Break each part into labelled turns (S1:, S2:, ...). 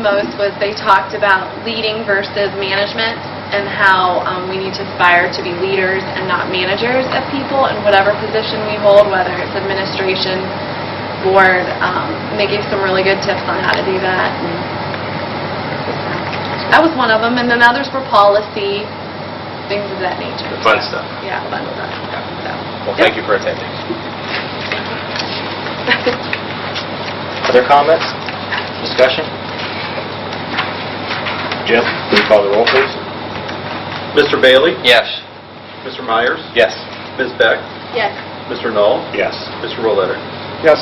S1: most was they talked about leading versus management and how um, we need to aspire to be leaders and not managers of people in whatever position we hold, whether it's administration, board, um, and they gave some really good tips on how to do that. And That was one of them, and then others were policy, things of that nature.
S2: The fun stuff.
S1: Yeah, fun stuff, so.
S2: Well, thank you for attending.
S3: Other comments? Discussion? Jim, will you call the roll, please?
S4: Mr. Bailey?
S2: Yes.
S4: Mr. Myers?
S3: Yes.
S4: Ms. Beck?
S1: Yes.
S4: Mr. Knoll?
S3: Yes.
S4: Mr. Rolletter?
S3: Yes.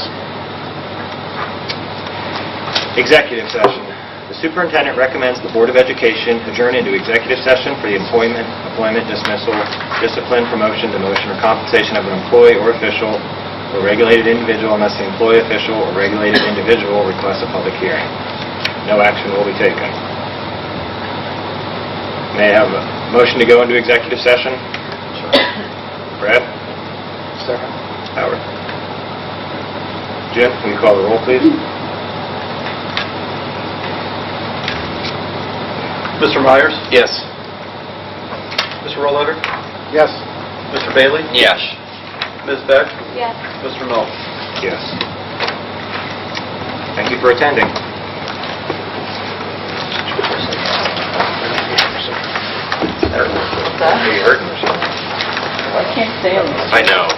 S3: Executive session. The superintendent recommends the Board of Education adjourn into executive session for the employment, employment dismissal, discipline, promotion, demotion, or compensation of an employee or official or regulated individual unless the employee, official, or regulated individual requests a public hearing. No action will be taken. May I have a motion to go into executive session? Brad? Second. Howard? Jeff, will you call the roll, please?
S4: Mr. Myers?
S2: Yes.
S4: Mr. Rolletter?
S3: Yes.
S4: Mr. Bailey?
S2: Yes.
S4: Ms. Beck?
S1: Yes.
S4: Mr. Knoll?
S3: Yes. Thank you for attending.
S2: I know.